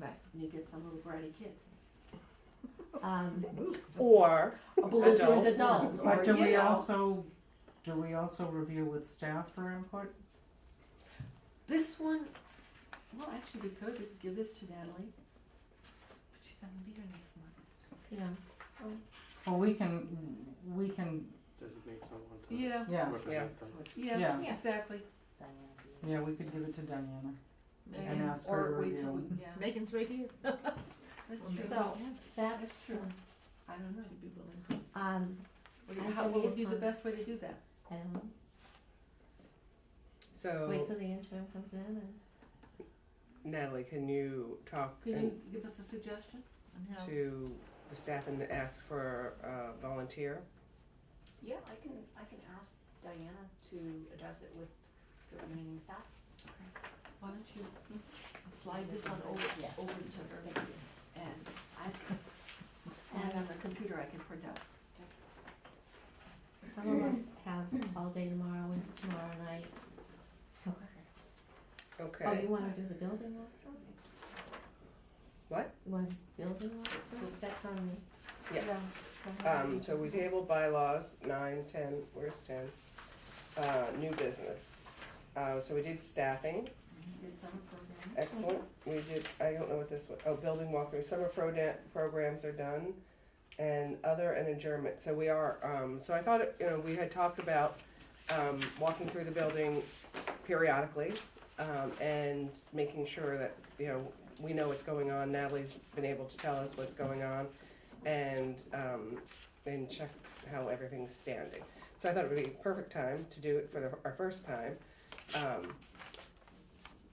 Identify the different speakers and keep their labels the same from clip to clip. Speaker 1: and you get some little bratty kid.
Speaker 2: Um,
Speaker 3: Or
Speaker 2: a belligerent
Speaker 1: Adult.
Speaker 2: adult,
Speaker 4: But
Speaker 2: or,
Speaker 4: do
Speaker 2: you
Speaker 4: we
Speaker 2: know.
Speaker 4: also, do we also review with staff for input?
Speaker 1: This one, well, actually, we could we could give this to Natalie. But she's not gonna be here next month.
Speaker 2: Yeah.
Speaker 4: Well, we can, we can,
Speaker 5: designate someone to
Speaker 1: Yeah,
Speaker 4: yeah,
Speaker 5: represent them.
Speaker 1: yeah,
Speaker 4: Yeah.
Speaker 1: exactly.
Speaker 4: yeah, we could give it to Diana and
Speaker 1: Yeah.
Speaker 4: ask her to
Speaker 1: Or wait till
Speaker 4: review.
Speaker 1: we, yeah,
Speaker 3: Megan's right here.
Speaker 1: that's true.
Speaker 2: So-
Speaker 1: Yeah,
Speaker 2: That's
Speaker 1: That's true. I don't know, you'd be willing.
Speaker 2: Um,
Speaker 1: What do
Speaker 2: I
Speaker 1: you- How,
Speaker 2: think
Speaker 1: what
Speaker 2: we
Speaker 1: would be the
Speaker 2: can-
Speaker 1: best way to do that?
Speaker 2: I don't know. Wait
Speaker 6: So
Speaker 2: till the interim comes in and.
Speaker 6: Natalie, can you talk
Speaker 1: Could
Speaker 6: and-
Speaker 1: you give us a suggestion?
Speaker 6: to the staff and ask for a volunteer?
Speaker 7: Yeah, I can, I can ask Diana to address it with the remaining staff.
Speaker 1: Why don't you slide this one over,
Speaker 7: Yeah.
Speaker 1: over to her? And I, and on the computer I can print out.
Speaker 2: Some of us have all day tomorrow into tomorrow night, so, oh,
Speaker 6: Okay,
Speaker 2: you wanna do the building walk?
Speaker 6: What?
Speaker 2: You want building walk first, that's on me.
Speaker 6: yes.
Speaker 2: Go ahead.
Speaker 6: Um, so we tabled bylaws, nine, ten, where's ten? Uh, new business. Uh, so we did staffing,
Speaker 1: Did summer program.
Speaker 6: excellent. We did, I don't know what this was, oh, building walkthrough, summer pro da- programs are done. And other and adjournment, so we are, um, so I thought, you know, we had talked about, um, walking through the building periodically. Um, and making sure that, you know, we know what's going on, Natalie's been able to tell us what's going on. And, um, and check how everything's standing. So I thought it would be a perfect time to do it for the, our first time, um,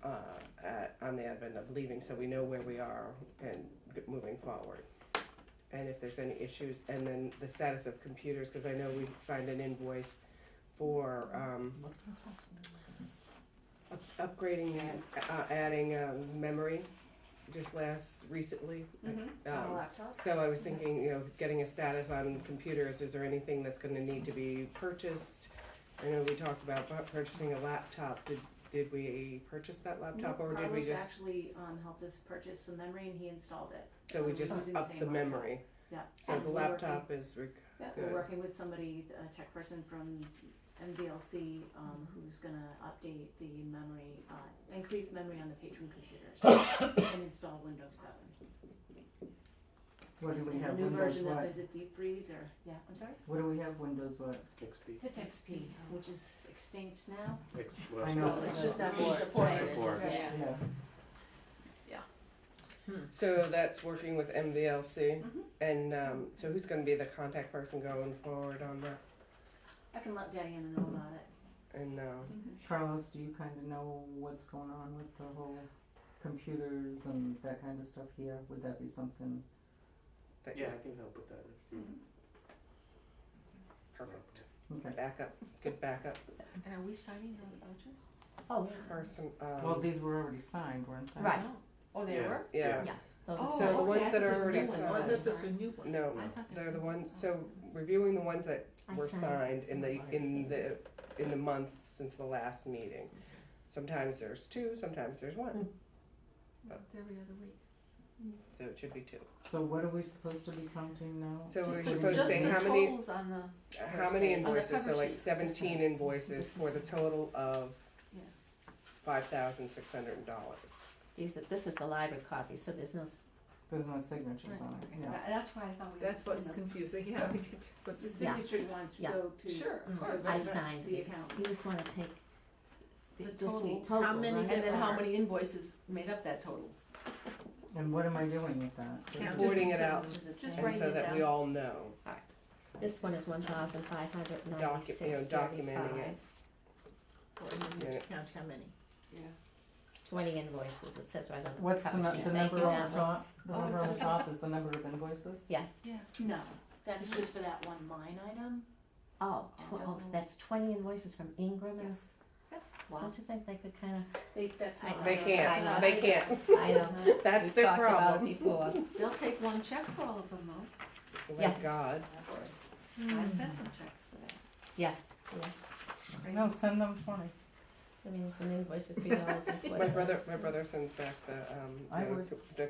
Speaker 6: uh, at, on the advent of leaving, so we know where we are and g- moving forward. And if there's any issues, and then the status of computers, because I know we signed an invoice for, um, up- upgrading and, uh, adding, um, memory just last, recently.
Speaker 7: On a
Speaker 6: Um,
Speaker 7: laptop?
Speaker 6: so I was thinking, you know, getting a status on computers, is there anything that's gonna need to be purchased? I know we talked about bu- purchasing a laptop, did, did we purchase that laptop or did we
Speaker 7: Carlos
Speaker 6: just,
Speaker 7: Mm-hmm. actually, um, helped us purchase some memory and he installed it.
Speaker 6: so we
Speaker 7: so
Speaker 6: just
Speaker 7: we're using the
Speaker 6: upped
Speaker 7: same
Speaker 6: the
Speaker 7: laptop.
Speaker 6: memory?
Speaker 7: Yeah.
Speaker 6: So
Speaker 7: and
Speaker 6: the
Speaker 7: we're
Speaker 6: laptop is, rec-
Speaker 7: working- Yeah,
Speaker 6: good.
Speaker 7: we're working with somebody, a tech person from MVLC, um, who's gonna update the memory, uh, increase memory on the patron computers and install Windows seven.
Speaker 4: What do we
Speaker 7: A
Speaker 4: have,
Speaker 7: new
Speaker 4: Windows
Speaker 7: version of,
Speaker 4: what?
Speaker 7: is it Deep Freeze or, yeah, I'm sorry?
Speaker 4: What do we have, Windows what?
Speaker 5: XP,
Speaker 7: It's XP, which is extinct now.
Speaker 5: X,
Speaker 4: I
Speaker 5: well,
Speaker 4: know.
Speaker 1: Well, it's just not
Speaker 7: Support.
Speaker 1: being supported.
Speaker 5: Just support.
Speaker 1: Right.
Speaker 4: Yeah,
Speaker 6: so that's working with MVLC?
Speaker 7: Mhm.
Speaker 6: And, um, so who's gonna be the contact person going forward on that?
Speaker 7: I can let Diana know about it.
Speaker 6: And, um,
Speaker 4: Carlos, do you kinda know what's going on with the whole computers and that kinda stuff here? Would that be something?
Speaker 6: that,
Speaker 5: yeah, I think they'll put that in.
Speaker 6: perfect,
Speaker 4: Okay,
Speaker 6: backup, good backup
Speaker 1: And are we signing those vouchers?
Speaker 2: Oh,
Speaker 6: person,
Speaker 4: well,
Speaker 6: um,
Speaker 4: these were already signed, weren't they?
Speaker 2: Right.
Speaker 1: Oh, they
Speaker 5: Yeah.
Speaker 1: were?
Speaker 6: yeah.
Speaker 2: those
Speaker 1: Oh,
Speaker 2: are.
Speaker 6: So the
Speaker 1: okay,
Speaker 6: ones
Speaker 1: I
Speaker 6: that
Speaker 1: thought
Speaker 6: are
Speaker 1: it was
Speaker 6: already
Speaker 1: new ones.
Speaker 6: signed.
Speaker 3: Oh, this is a
Speaker 1: Sorry.
Speaker 3: new one.
Speaker 6: No,
Speaker 1: I thought they
Speaker 6: They're the
Speaker 1: were-
Speaker 6: ones, so reviewing the ones that
Speaker 2: I
Speaker 6: were
Speaker 2: signed
Speaker 6: signed in the,
Speaker 2: some
Speaker 6: in
Speaker 2: of
Speaker 6: the, in the month since the last meeting. Sometimes there's two, sometimes there's one,
Speaker 1: It's Every other week.
Speaker 6: so it should be two.
Speaker 4: So what are we supposed to be counting now?
Speaker 6: So we're
Speaker 4: the
Speaker 6: supposed to
Speaker 1: Just
Speaker 6: say
Speaker 1: the
Speaker 6: how
Speaker 4: invoices?
Speaker 6: many-
Speaker 1: totals on the.
Speaker 6: How many
Speaker 1: On the
Speaker 6: invoices,
Speaker 1: cover
Speaker 6: so like
Speaker 1: sheet, just that.
Speaker 6: seventeen invoices for the total of
Speaker 1: Yeah.
Speaker 6: five thousand six hundred dollars.
Speaker 2: These, are- this is the library copy, so there's no, s-
Speaker 4: There's no signatures on it, yeah.
Speaker 1: That- That's why I thought we.
Speaker 3: That's
Speaker 1: were
Speaker 3: what's
Speaker 1: doing
Speaker 3: confusing, yeah, we did, but
Speaker 7: The
Speaker 2: Yeah.
Speaker 7: signature ones
Speaker 2: Yeah.
Speaker 7: go to.
Speaker 1: the- Sure, of
Speaker 3: Mm.
Speaker 1: course.
Speaker 2: I
Speaker 7: Right,
Speaker 2: signed
Speaker 7: The
Speaker 2: these.
Speaker 7: account.
Speaker 2: You just wanna take the,
Speaker 1: The
Speaker 2: just the
Speaker 1: total.
Speaker 2: total,
Speaker 3: How many
Speaker 2: right?
Speaker 1: And then how
Speaker 2: Or-
Speaker 1: many invoices made up that total?
Speaker 4: And what am I doing with that?
Speaker 3: Yeah.
Speaker 4: Is it-
Speaker 6: Sorting it out,
Speaker 1: Just
Speaker 6: and
Speaker 1: writing
Speaker 6: so
Speaker 1: it
Speaker 6: that we
Speaker 1: down.
Speaker 6: all know,
Speaker 2: This one is one thousand five hundred
Speaker 6: Docu- you know,
Speaker 2: ninety-six
Speaker 6: documenting
Speaker 2: thirty-five,
Speaker 6: it.
Speaker 2: Mm-hmm.
Speaker 3: we need
Speaker 6: Yeah.
Speaker 3: to count how many.
Speaker 1: Yeah.
Speaker 2: twenty invoices, it says right on the cover
Speaker 4: What's
Speaker 2: sheet.
Speaker 4: the, nu- the
Speaker 2: Thank
Speaker 4: number
Speaker 2: you,
Speaker 4: on
Speaker 2: Natalie.
Speaker 4: the top, the
Speaker 1: Oh,
Speaker 4: number on the
Speaker 1: it's-
Speaker 4: top is the number of invoices?
Speaker 2: Yeah.
Speaker 7: No, that's
Speaker 2: Mm-hmm.
Speaker 7: just for that one line item.
Speaker 2: Oh, tw- oh, so
Speaker 1: Oh.
Speaker 2: that's twenty invoices from Ingram and.
Speaker 7: Yep.
Speaker 2: Don't you think they could kinda,
Speaker 7: They, that's
Speaker 2: I
Speaker 7: not.
Speaker 6: they
Speaker 2: know.
Speaker 6: can't, they can't,
Speaker 2: I know,
Speaker 1: Uh,
Speaker 6: that's
Speaker 2: we've
Speaker 6: their
Speaker 2: talked about it
Speaker 6: problem.
Speaker 2: before,
Speaker 1: They'll take one check for all of them though.
Speaker 6: Oh my
Speaker 2: Yeah.
Speaker 6: God,
Speaker 1: I've sent them checks for that.
Speaker 2: Yeah,
Speaker 1: Hmm. Right?
Speaker 4: No, send them twenty.
Speaker 2: I mean, it's an invoice for three dollars and four
Speaker 6: my brother,
Speaker 2: cents.
Speaker 6: my brother sends back the, um,
Speaker 4: I
Speaker 6: the-
Speaker 4: would.
Speaker 6: the